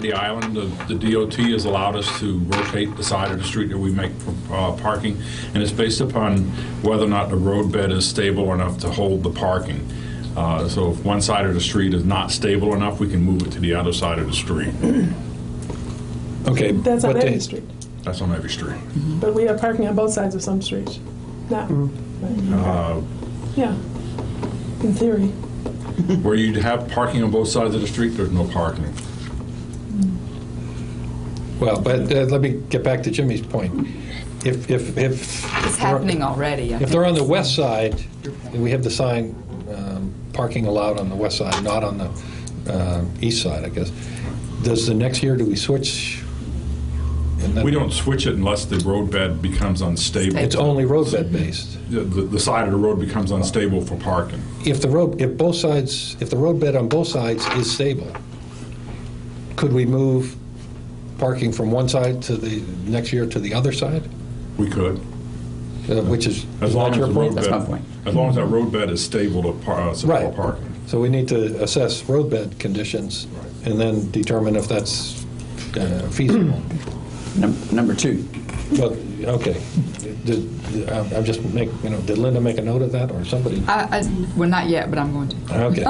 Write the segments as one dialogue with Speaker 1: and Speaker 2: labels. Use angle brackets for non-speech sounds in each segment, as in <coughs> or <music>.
Speaker 1: the island, the the DOT has allowed us to rotate the side of the street that we make for uh, parking, and it's based upon whether or not the roadbed is stable enough to hold the parking. Uh, So if one side of the street is not stable enough, we can move it to the other side of the street.
Speaker 2: Okay.
Speaker 3: That's
Speaker 2: but
Speaker 3: on
Speaker 2: the-
Speaker 3: every street,
Speaker 1: That's on every street.
Speaker 3: but we have parking on both sides of some streets. Now,
Speaker 4: Mm.
Speaker 1: Uh,
Speaker 3: yeah, in theory.
Speaker 1: Where you'd have parking on both sides of the street, there's no parking.
Speaker 2: Well, but uh, let me get back to Jimmy's point. If, if, if.
Speaker 4: It's happening already. I
Speaker 2: If
Speaker 4: think.
Speaker 2: they're on the west side, we have the sign, um, parking allowed on the west side, not on the uh, east side, I guess. Does the next year, do we switch? And then
Speaker 1: We don't switch it unless the roadbed becomes unstable.
Speaker 2: It's only roadbed based.
Speaker 1: The- The the side of the road becomes unstable for parking.
Speaker 2: If the road, if both sides, if the roadbed on both sides is stable, could we move parking from one side to the, next year to the other side?
Speaker 1: We could,
Speaker 2: Uh, Which is.
Speaker 1: as long as the
Speaker 2: your point?
Speaker 4: That's my
Speaker 1: roadbed,
Speaker 4: point.
Speaker 1: as long as that roadbed is stable to par- uh, support
Speaker 2: Right.
Speaker 1: parking.
Speaker 2: So we need to assess roadbed conditions and then determine if that's uh, feasible.
Speaker 4: Num- Number two,
Speaker 2: But, okay, Did- I'm I'm just make, you know, did Linda make a note of that or somebody?
Speaker 4: I, I, well, not yet, but I'm going to. Uh,
Speaker 2: Okay,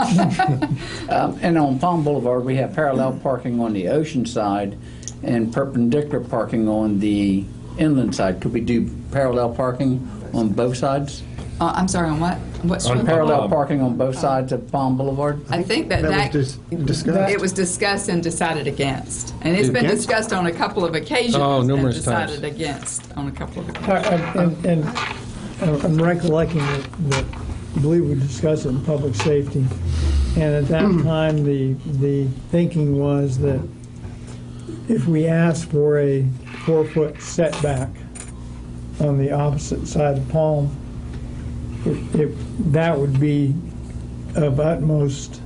Speaker 5: Um, And on Palm Boulevard, we have parallel parking on the ocean side and perpendicular parking on the inland side. Could we do parallel parking on both sides?
Speaker 4: Uh, I'm sorry, on what? What street?
Speaker 5: Parallel parking on both sides of Palm Boulevard?
Speaker 4: I think that
Speaker 6: That
Speaker 4: that.
Speaker 6: was dis- discussed.
Speaker 4: It was discussed and decided against. And it's been
Speaker 6: Against?
Speaker 4: discussed on a couple of occasions.
Speaker 2: Oh, numerous
Speaker 4: And
Speaker 2: times.
Speaker 4: decided against on a couple of occasions.
Speaker 6: I- I- And, and I'm recollecting that, that, I believe we discussed it in public safety. And at that time, the, the thinking was that if we asked for a four-foot setback on the opposite side of Palm, it, it, that would be of utmost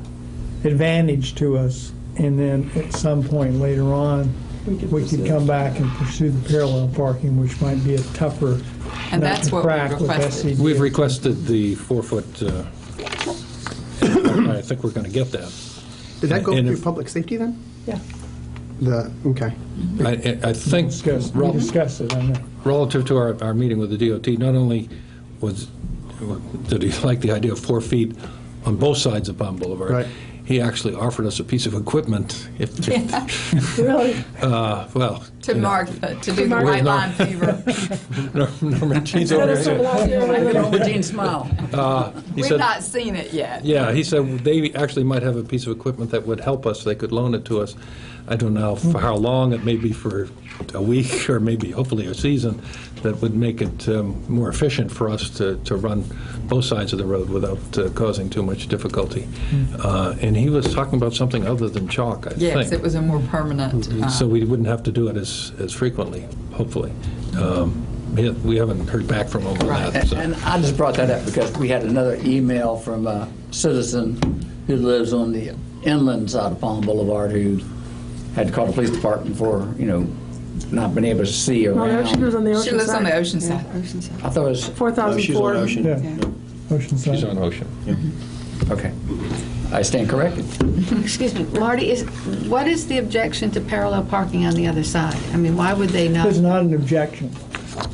Speaker 6: advantage to us. And then at some point later on, we could come back and pursue the parallel parking, which might be a tougher
Speaker 4: And
Speaker 6: nut
Speaker 4: that's
Speaker 6: to
Speaker 4: what we
Speaker 6: crack with E
Speaker 4: requested.
Speaker 2: <laughs>
Speaker 6: SCD.
Speaker 2: we've requested the four-foot, uh, <coughs> I think we're going to get that.
Speaker 6: Did that go
Speaker 2: And
Speaker 6: through
Speaker 2: if-
Speaker 6: public safety then?
Speaker 3: Yeah.
Speaker 6: The, okay.
Speaker 2: I- I I think
Speaker 6: Discuss, we
Speaker 2: rel-
Speaker 6: discussed it, I know.
Speaker 2: relative to our, our meeting with the DOT, not only was, did he like the idea of four feet on both sides of Palm Boulevard.
Speaker 6: Right.
Speaker 2: He actually offered us a piece of equipment, if,
Speaker 4: <laughs>
Speaker 3: Really,
Speaker 2: uh, well. <laughs>
Speaker 4: To
Speaker 2: you know,
Speaker 4: mark, uh, to do the
Speaker 3: mark-
Speaker 4: white line fever.
Speaker 2: Norman Jean's
Speaker 3: That
Speaker 2: over
Speaker 3: is
Speaker 2: here.
Speaker 3: something I really don't-
Speaker 5: Gene, smile.
Speaker 2: He
Speaker 4: We've
Speaker 2: said-
Speaker 4: not seen it yet.
Speaker 2: Yeah, he said they actually might have a piece of equipment that would help us, they could loan it to us. I don't know for how long, it may be for a week, <laughs> or maybe hopefully a season, that would make it um, more efficient for us to, to run both sides of the road without uh, causing too much difficulty. Uh, And he was talking about something other than chalk, I think.
Speaker 4: Yes, it was a more permanent. uh,
Speaker 2: Mm-hmm. So we wouldn't have to do it as, as frequently, hopefully. Um, yeah, We haven't heard back from him on that,
Speaker 5: And
Speaker 2: so.
Speaker 5: and I just brought that up because we had another email from a citizen who lives on the inland side of Palm Boulevard who had to call the police department for, you know, not being able to see
Speaker 3: No,
Speaker 5: around.
Speaker 3: no, she lives on the
Speaker 4: She
Speaker 3: ocean
Speaker 4: lives on the
Speaker 3: side.
Speaker 4: ocean side.
Speaker 5: I thought it was,
Speaker 3: Four thousand four.
Speaker 6: Yeah,
Speaker 2: He's
Speaker 6: Oceanside.
Speaker 2: on Ocean.
Speaker 5: okay. I stand corrected.
Speaker 7: Excuse me, Marty, is, what is the objection to parallel parking on the other side? I mean, why would they not?
Speaker 6: It's not an objection.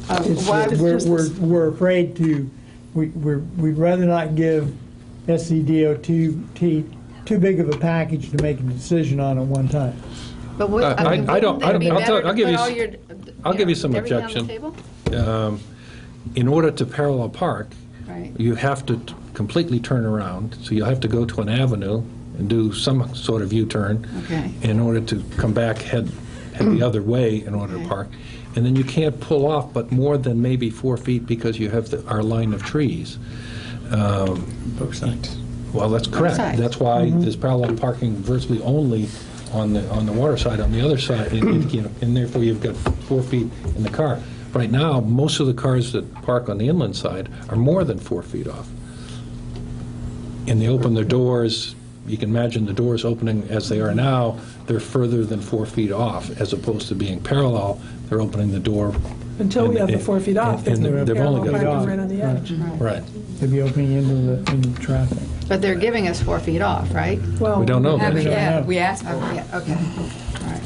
Speaker 3: Uh,
Speaker 6: It's
Speaker 7: Why
Speaker 6: that
Speaker 7: would-
Speaker 6: We're, we're, we're afraid to, we, we're, we'd rather not give SCDOT too big of a package to make a decision on at one time.
Speaker 7: But would,
Speaker 2: Uh, I-
Speaker 7: I mean,
Speaker 2: I don't-
Speaker 7: wouldn't
Speaker 2: I
Speaker 7: it
Speaker 2: don't-
Speaker 7: be
Speaker 2: I'll tell-
Speaker 7: better
Speaker 2: I'll
Speaker 7: to
Speaker 2: give you
Speaker 7: put all
Speaker 2: s-
Speaker 7: your,
Speaker 2: I'll
Speaker 7: you
Speaker 2: give you
Speaker 7: know,
Speaker 2: some
Speaker 7: everything on the
Speaker 2: objection.
Speaker 7: table?
Speaker 2: um, in order to parallel park,
Speaker 7: Right.
Speaker 2: you have to t- completely turn around, so you'll have to go to an avenue and do some sort of U-turn
Speaker 7: Okay.
Speaker 2: in order to come back, head, head the other way in order to
Speaker 7: Okay.
Speaker 2: park. And then you can't pull off but more than maybe four feet because you have the- our line of trees.
Speaker 5: Both sides.
Speaker 2: Well, that's correct.
Speaker 7: sides.
Speaker 2: That's why there's parallel parking virtually only on the, on the water side, on the other side, and- and, you know, and therefore you've got four feet in the car. Right now, most of the cars that park on the inland side are more than four feet off. And they open their doors, you can imagine the doors opening as they are now, they're further than four feet off, as opposed to being parallel, they're opening the door.
Speaker 3: Until we
Speaker 2: and-
Speaker 3: have the four feet off.
Speaker 2: And
Speaker 3: there's no
Speaker 2: and they've only
Speaker 3: parallel
Speaker 2: got,
Speaker 3: parking Right on the edge.
Speaker 2: right.
Speaker 6: They'd be opening into the, into traffic.
Speaker 7: But they're giving us four feet off, right?
Speaker 3: Well,
Speaker 2: We don't know that.
Speaker 4: Haven't
Speaker 6: don't
Speaker 4: yet.
Speaker 6: know.
Speaker 4: We asked for it.
Speaker 7: Okay, okay. All right.